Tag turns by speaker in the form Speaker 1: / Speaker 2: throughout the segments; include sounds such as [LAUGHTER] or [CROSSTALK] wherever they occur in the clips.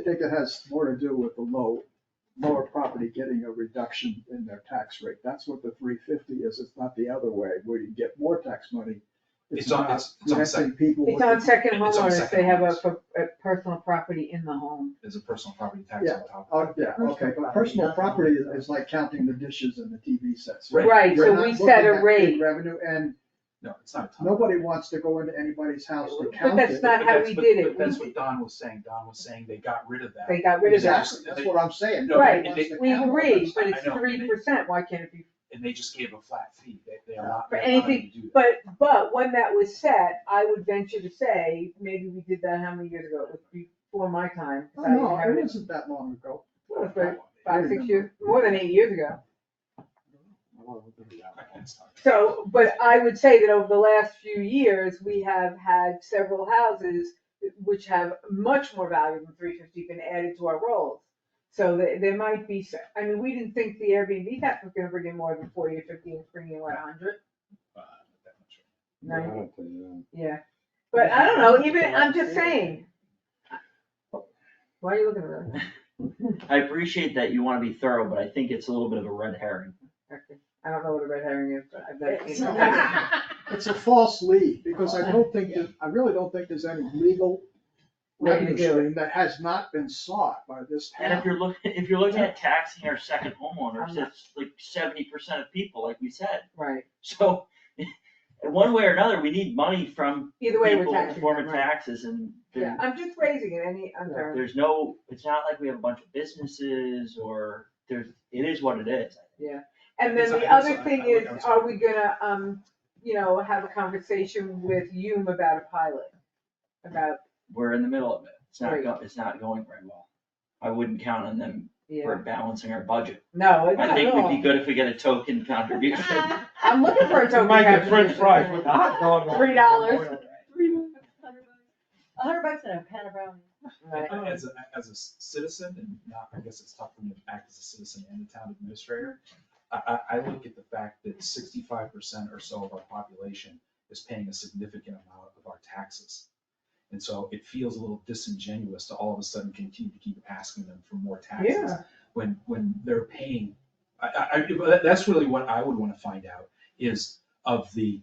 Speaker 1: I think it has more to do with the low, lower property getting a reduction in their tax rate. That's what the three fifty is. It's not the other way where you get more tax money.
Speaker 2: It's on-
Speaker 1: not
Speaker 2: it's- it's on
Speaker 1: preventing
Speaker 2: second.
Speaker 1: people
Speaker 3: It's
Speaker 1: with-
Speaker 3: on second
Speaker 2: It's on
Speaker 3: homeowners,
Speaker 2: second
Speaker 3: they have a,
Speaker 2: homeowners.
Speaker 3: pro- a personal property in the home.
Speaker 2: There's a personal property tax on top of
Speaker 1: Oh, yeah, okay, but personal property is- is like counting the dishes and the TV sets.
Speaker 2: Right.
Speaker 3: Right,
Speaker 1: You're
Speaker 3: so
Speaker 1: not
Speaker 3: we set a
Speaker 1: looking at big
Speaker 3: rate,
Speaker 1: Revenue, and
Speaker 2: it. No, it's not a ton.
Speaker 1: nobody wants to go into anybody's house to
Speaker 3: But
Speaker 1: count
Speaker 3: that's
Speaker 1: it.
Speaker 3: not
Speaker 2: But
Speaker 3: how
Speaker 2: that's
Speaker 3: we
Speaker 2: what-
Speaker 3: did it.
Speaker 2: but That's what Don was saying. Don was saying they got rid of that.
Speaker 3: they got rid of that.
Speaker 1: Exactly, that's what I'm saying.
Speaker 2: No,
Speaker 1: Nobody
Speaker 3: Right,
Speaker 1: wants to
Speaker 3: We
Speaker 1: count it.
Speaker 3: agree, but
Speaker 2: I
Speaker 3: it's
Speaker 2: know.
Speaker 3: three percent, why can't it be?
Speaker 2: And they just gave a flat fee. They, they allowed,
Speaker 3: For
Speaker 2: they allowed them to
Speaker 3: anything-
Speaker 2: do that.
Speaker 3: But, but when that was set, I would venture to say, maybe we did that how many years ago, it was before my time. 'cause
Speaker 1: Oh,
Speaker 3: I
Speaker 1: No,
Speaker 3: inherited-
Speaker 1: it wasn't that long ago.
Speaker 3: Well, it's like Five, six years, more than eight years ago.
Speaker 2: I can't stop.
Speaker 3: So, but I would say that over the last few years, we have had several houses which have much more value than three fifty been added to our rolls. So there, there might be, s- I mean, we didn't think the Airbnb tax was gonna bring in more than forty or fifty, it's bringing in what, a hundred,
Speaker 2: Uh, that much.
Speaker 3: ninety,
Speaker 4: Right.
Speaker 3: yeah. But I don't know, even, I'm just saying. Why are you looking at me?
Speaker 5: I appreciate that you wanna be thorough, but I think it's a little bit of a red herring.
Speaker 3: I don't know what a red herring is, but I've never seen
Speaker 6: [LAUGHS]
Speaker 1: It's-
Speaker 3: it.
Speaker 1: It's a false lead, because I don't think, that- I really don't think there's any legal
Speaker 3: Way to
Speaker 1: revenue
Speaker 3: do it.
Speaker 1: stream that has not been sought by this
Speaker 5: And if
Speaker 1: town.
Speaker 5: you're looking, if you're looking at taxing our second
Speaker 3: I'm
Speaker 5: homeowners,
Speaker 3: not-
Speaker 5: that's like seventy percent of people, like we said.
Speaker 3: Right,
Speaker 5: So, [LAUGHS] in one way or another, we need money from
Speaker 3: either way, we're
Speaker 5: people
Speaker 3: taxing.
Speaker 5: in the form
Speaker 3: them,
Speaker 5: of
Speaker 3: right.
Speaker 5: taxes and
Speaker 3: Yeah,
Speaker 5: there-
Speaker 3: I'm just raising it, any, I'm sorry.
Speaker 5: there's no, it's not like we have a bunch of businesses or there's, it is what it is.
Speaker 3: And then
Speaker 2: Yes,
Speaker 3: the
Speaker 2: I-
Speaker 3: other
Speaker 2: yes, I-
Speaker 3: thing
Speaker 2: I would- I'm
Speaker 3: is,
Speaker 2: sorry.
Speaker 3: are we gonna, um, you know, have a conversation with Hume about a pilot? About,
Speaker 5: We're in the middle of it. It's not
Speaker 3: Right.
Speaker 5: go, it's not going very well. I wouldn't count on them for
Speaker 3: yeah,
Speaker 5: balancing our budget.
Speaker 3: no, it's
Speaker 5: I
Speaker 3: not at
Speaker 5: think we'd be
Speaker 3: all.
Speaker 5: good if we get a token contribution.
Speaker 6: Ah,
Speaker 3: I'm looking for a token.
Speaker 4: Might get
Speaker 3: contribution.
Speaker 4: french fries with the hot dog. on it.
Speaker 3: Three dollars.
Speaker 6: A hundred bucks and a pan of brownies.
Speaker 3: Right.
Speaker 2: And As a, as a c- citizen, and not, I guess it's tough for me to act as a citizen and a town administrator, I, I, I look at the fact that sixty-five percent or so of our population is paying a significant amount of our taxes. And so it feels a little disingenuous to all of a sudden continue to keep asking them for more taxes.
Speaker 3: Yeah.
Speaker 2: When, when they're paying, I, I, I- but that- that's really what I would wanna find out, is of the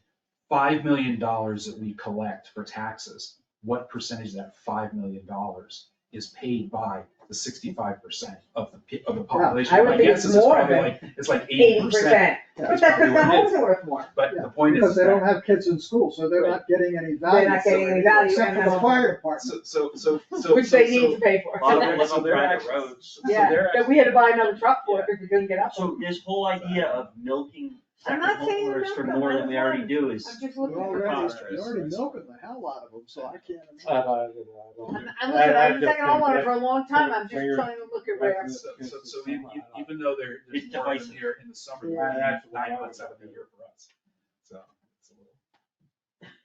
Speaker 2: five million dollars that we collect for taxes, what percentage of that five million dollars is paid by the sixty-five percent of the, pe- of the population?
Speaker 3: I would
Speaker 2: My
Speaker 3: think
Speaker 2: guess
Speaker 3: it's
Speaker 2: is it's
Speaker 3: more
Speaker 2: probably
Speaker 3: than
Speaker 2: like- It's like eighty
Speaker 3: Eighty
Speaker 2: percent,
Speaker 1: Yeah,
Speaker 3: percent, but
Speaker 2: that's
Speaker 3: that's
Speaker 2: probably what it is.
Speaker 3: because the homes are worth more.
Speaker 2: but the
Speaker 1: Yeah,
Speaker 2: point is.
Speaker 1: Because they
Speaker 2: that-
Speaker 1: don't have kids in school, so they're not getting any value.
Speaker 3: They're not getting any value,
Speaker 1: Except
Speaker 3: and
Speaker 1: for the
Speaker 3: then-
Speaker 1: fire department.
Speaker 2: So, so, so, so.
Speaker 3: [LAUGHS] Which
Speaker 2: so-
Speaker 3: they
Speaker 2: so-
Speaker 3: need to pay
Speaker 5: A
Speaker 3: for.
Speaker 5: lot of them
Speaker 2: So
Speaker 5: live on
Speaker 2: they're
Speaker 5: private
Speaker 2: actually-
Speaker 5: roads.
Speaker 2: so
Speaker 3: Yeah,
Speaker 2: they're
Speaker 3: [LAUGHS] that we had to buy another truck for because we couldn't get up.
Speaker 5: So this whole idea of milking
Speaker 3: I'm
Speaker 5: second
Speaker 3: not saying you
Speaker 5: homeowners for
Speaker 3: milk them,
Speaker 5: more
Speaker 3: I'm
Speaker 5: than we already do is.
Speaker 3: I'm just
Speaker 1: They're
Speaker 3: looking for.
Speaker 1: already,
Speaker 5: Right.
Speaker 1: they're already milking the hell out of them, so I can't.
Speaker 4: I
Speaker 1: imagine.
Speaker 4: don't know, I don't know.
Speaker 3: I'm, I'm looking,
Speaker 4: I- I
Speaker 3: I've been
Speaker 4: just
Speaker 3: second
Speaker 4: think
Speaker 3: homeowner
Speaker 4: that-
Speaker 3: for a long time, I'm just
Speaker 4: Fingers-
Speaker 3: trying to look at where.
Speaker 4: That's-
Speaker 2: So, so, so e- e- even though there, there's
Speaker 5: It's
Speaker 2: more of them
Speaker 5: divisive.
Speaker 2: here in the summer,
Speaker 3: Yeah.
Speaker 2: there's
Speaker 4: That's what
Speaker 2: nine
Speaker 4: I
Speaker 2: months
Speaker 4: was
Speaker 2: out of the
Speaker 4: thinking.
Speaker 2: year for us, so. it's a little-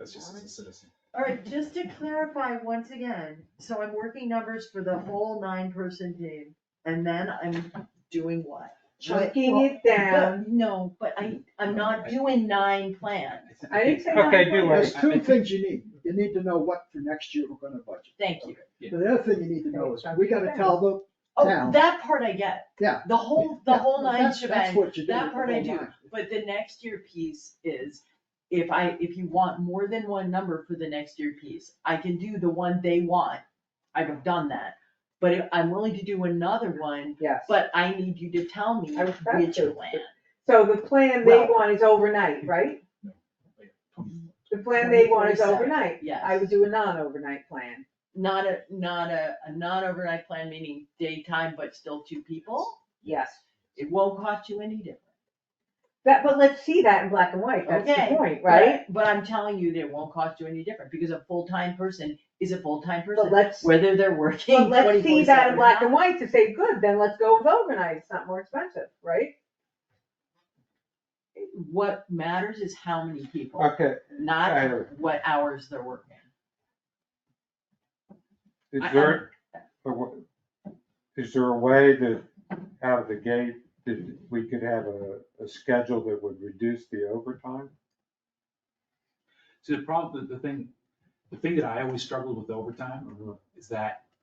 Speaker 2: That's just as a citizen.
Speaker 6: All right, just to clarify once again, so I'm working numbers for the whole nine person team and then I'm doing what?
Speaker 3: Chunking it down.
Speaker 6: But- No, but I, I'm not doing nine plans.
Speaker 3: I didn't say.
Speaker 4: Okay,
Speaker 3: not
Speaker 4: do
Speaker 3: much.
Speaker 4: it.
Speaker 1: There's two things you need. You need to know what for next year we're gonna budget.
Speaker 6: Thank you.
Speaker 1: And The other thing you need to know is, we gotta tell them, Now.
Speaker 6: Oh, that part I get.
Speaker 1: Yeah.
Speaker 6: The whole, the
Speaker 1: Yeah,
Speaker 6: whole nine
Speaker 1: that's- that's
Speaker 6: shebang.
Speaker 1: what you do
Speaker 6: that
Speaker 1: with the
Speaker 6: part I
Speaker 1: whole
Speaker 6: do.
Speaker 1: nine.
Speaker 6: But the next year piece is, if I, if you want more than one number for the next year piece, I can do the one they want. I've done that, but if- I'm willing to do another one,
Speaker 3: Yes.
Speaker 6: but I need you to tell me
Speaker 3: I was about
Speaker 6: which
Speaker 3: to.
Speaker 6: plan.
Speaker 3: So the plan they
Speaker 6: Well-
Speaker 3: want is overnight, right? The plan they want is
Speaker 6: 24/7.
Speaker 3: overnight.
Speaker 6: Yes.
Speaker 3: I would do a non-overnight plan.
Speaker 6: Not a, not a, a non-overnight plan, meaning daytime, but still two people,
Speaker 3: Yes.
Speaker 6: it won't cost you any different.
Speaker 3: That, but let's see that in black and white. That's
Speaker 6: Okay,
Speaker 3: the point, right?
Speaker 6: But I'm telling you, that it won't cost you any different, because a full-time person is a full-time
Speaker 3: But
Speaker 6: person,
Speaker 3: let's,
Speaker 6: whether they're working
Speaker 3: but let's see that in
Speaker 6: 24/7 or
Speaker 3: black and
Speaker 6: not.
Speaker 3: white to say, good, then let's go with overnight. It's not more expensive, right?
Speaker 6: What matters is how many people.
Speaker 4: Okay, I
Speaker 6: not
Speaker 4: heard.
Speaker 6: what hours they're working.
Speaker 4: is
Speaker 6: I- I-
Speaker 4: there, a w- is there a way that out of the gate, that we could have a, a schedule that would reduce the overtime?
Speaker 3: Mm-hmm.
Speaker 2: So the problem, the thing, the thing that I always struggled with overtime is that